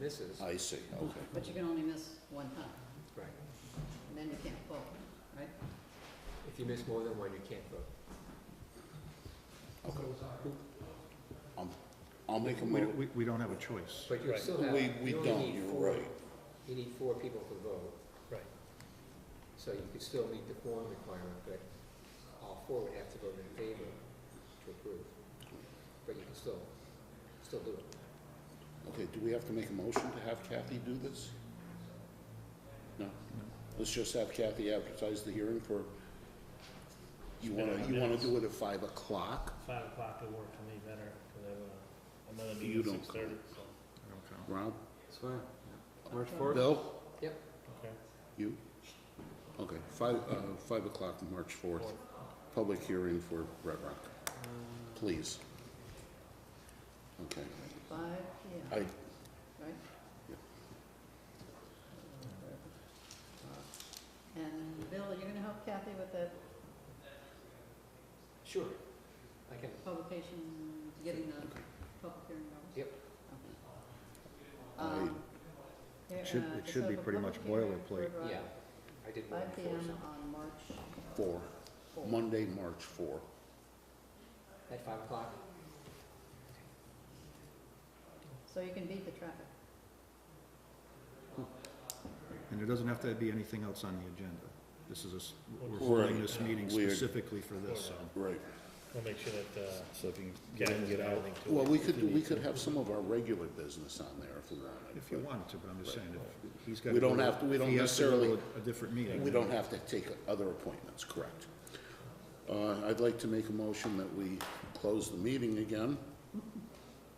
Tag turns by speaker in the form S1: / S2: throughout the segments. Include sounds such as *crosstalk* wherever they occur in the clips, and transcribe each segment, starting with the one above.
S1: misses,
S2: I see, okay.
S3: But you can only miss one time,
S1: right.
S3: and then you can't vote, right?
S1: If you miss more than one, you can't vote.
S2: I'll make a
S4: We,
S2: mo,
S4: we- we don't have a choice.
S1: But you
S5: Right.
S1: still have,
S2: we, we
S1: you only
S2: don't,
S1: need
S2: you're
S1: four,
S2: right.
S1: you need four people to vote.
S5: Right.
S1: So you could still meet the quorum requirement, but all four would have to vote in favor to approve. But you can still, still do it.
S2: Okay, do we have to make a motion to have Kathy do this? No? Let's just have Kathy advertise the hearing for, you wanna, you wanna do it at five o'clock,
S5: Five o'clock would work for me better, because I have uh, another
S2: You
S5: meeting at
S2: don't
S5: six thirty, so,
S4: I don't count.
S2: Rob?
S1: That's fine.
S3: March
S2: Bill?
S1: Yep,
S5: okay.
S2: You? Okay, five, uh, five o'clock, March fourth, public hearing for Red Rock, please. Okay,
S3: Five, yeah,
S2: I,
S3: right?
S2: Yeah.
S3: And Bill, are you gonna help Kathy with that
S1: sure. I can,
S3: publication, getting the public hearing notice?
S1: Yep.
S3: Um, here,
S4: It should-
S3: uh,
S4: it should
S3: so
S4: be
S3: the
S4: pretty much
S3: public hearing for,
S4: boilerplate.
S3: uh,
S1: yeah, I did one
S3: Five P
S1: before,
S3: M
S1: so-
S3: on March
S2: four,
S3: fourth.
S2: Monday, March four.
S1: at five o'clock.
S3: So you can beat the traffic.
S4: And it doesn't have to be anything else on the agenda. This is a, s- we're
S5: Right.
S4: holding this meeting
S2: Weird.
S4: specifically for this, so.
S2: Right.
S5: We'll make sure that, uh,
S4: So if you
S5: Kathy doesn't add anything to it.
S2: Well, we could, we could have some of our regular business on there if we wanted.
S4: If you wanted to, but I'm just saying, if he's got.
S2: We don't have to- we don't necessarily-
S4: A different meeting.
S2: We don't have to take other appointments, correct? Uh, I'd like to make a motion that we close the meeting again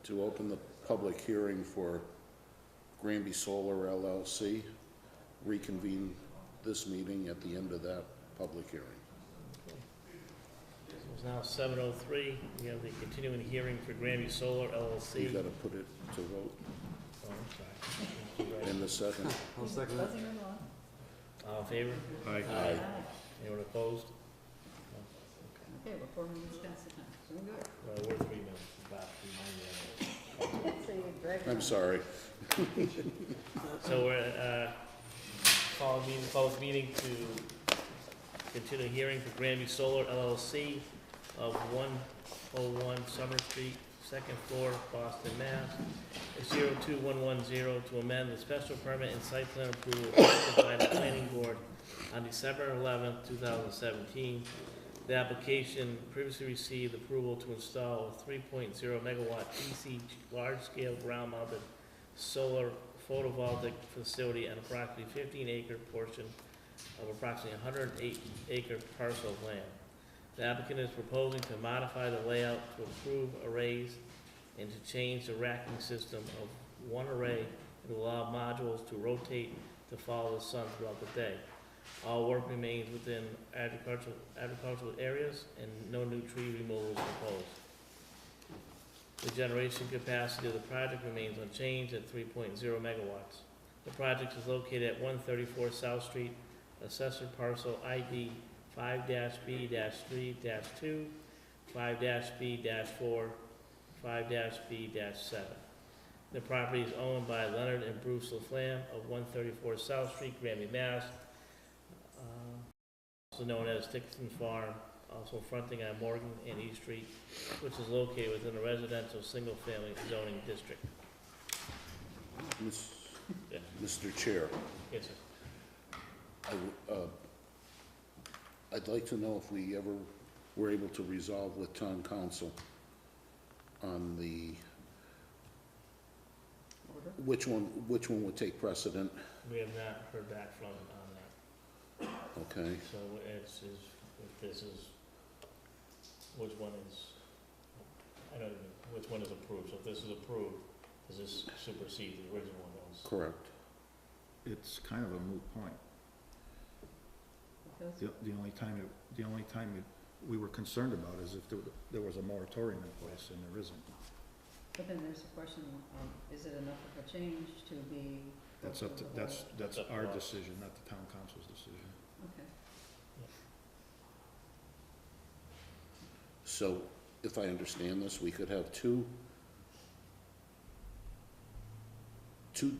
S2: to open the public hearing for Granby Solar LLC, reconvene this meeting at the end of that public hearing.
S5: It's now seven oh three, we have the continuing hearing for Grammy Solar
S2: You
S5: LLC.
S2: gotta put it to vote
S5: Oh, I'm sorry.
S2: in the second.
S1: I'll second
S3: Doesn't it on?
S5: All in favor?
S4: Aye.
S2: Aye.
S5: Anyone opposed?
S3: Okay, we're four minutes past the time, so we're good.
S5: Well, we're three minutes, about three minutes.
S3: *laughs* So you drag it
S2: I'm
S3: on.
S2: sorry.
S5: So we're, uh, call meeting, public meeting to continue hearing for Granby Solar LLC of one oh one Summer Street, second floor, Boston, Mass. Zero two one one zero to amend the special permit and site plan approval granted by the planning board on December eleventh, two thousand seventeen. The application previously received approval to install a three point zero megawatt DC large-scale ground mounted solar photovoltaic facility on approximately fifteen acre portion of approximately hundred and eight acre parcel of land. The applicant is proposing to modify the layout to improve arrays and to change the racking system of one array and allow modules to rotate to follow the sun throughout the day. All work remains within agricultural, agricultural areas and no new tree removal is proposed. The generation capacity of the project remains unchanged at three point zero megawatts. The project is located at one thirty-four South Street, assessor parcel ID five B three two, five B four, five B seven. The property is owned by Leonard and Bruce LaFlamme of one thirty-four South Street, Grammy, Mass. uh, Also known as Dixon Farm, also fronting on Morgan and East Street, which is located within a residential single-family zoning district.
S2: Miss-
S5: Yeah.
S2: Mr. Chair.
S5: Yes, sir.
S2: I w- uh, I'd like to know if we ever were able to resolve with town council on the,
S3: Order.
S2: which one, which one would take precedent,
S5: We have not heard back from him on that,
S2: okay?
S5: so it's, is, if this is, which one is, I don't even, which one is approved, so if this is approved, does this supersede the original one that was?
S2: Correct.
S4: It's kind of a moot point.
S3: Because-
S4: The, the only time, it- the only time it- we were concerned about is if there, there was a moratorium in place, and there isn't.
S3: But then there's a question of, is it enough of a change to be?
S4: That's up to, that's, that's
S5: That's up to
S4: our
S5: us.
S4: decision, not the town council's decision.
S3: Okay,
S2: So if I understand this, we could have two, two